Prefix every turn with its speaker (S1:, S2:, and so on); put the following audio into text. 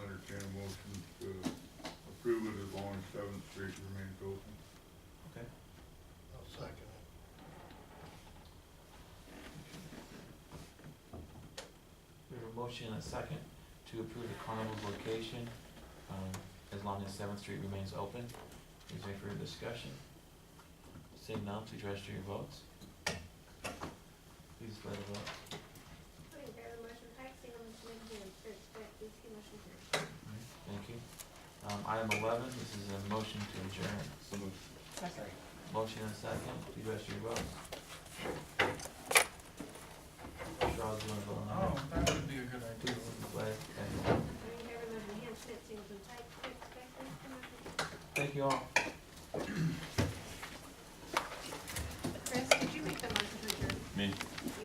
S1: motion and a second to approve the carnival's location, um, as long as Seventh Street remains open. Is there further discussion? Seeing none, please register your votes. Please let it vote.
S2: In favor of the motion, Pike, single motion McKeon, third, split, these two uh, motion carries.
S1: Thank you. Um, item eleven, this is a motion to adjourn.
S3: So moved.
S4: Second.
S1: Motion and a second, please register your votes. Charles, you wanna vote on that?
S5: Oh, that would be a good
S1: Please,
S5: idea.
S1: Blake, thank you.
S2: In favor of the motion, Ham, Schmidt, singleton, Pike, third, split, these two motion carries.
S1: Thank you all.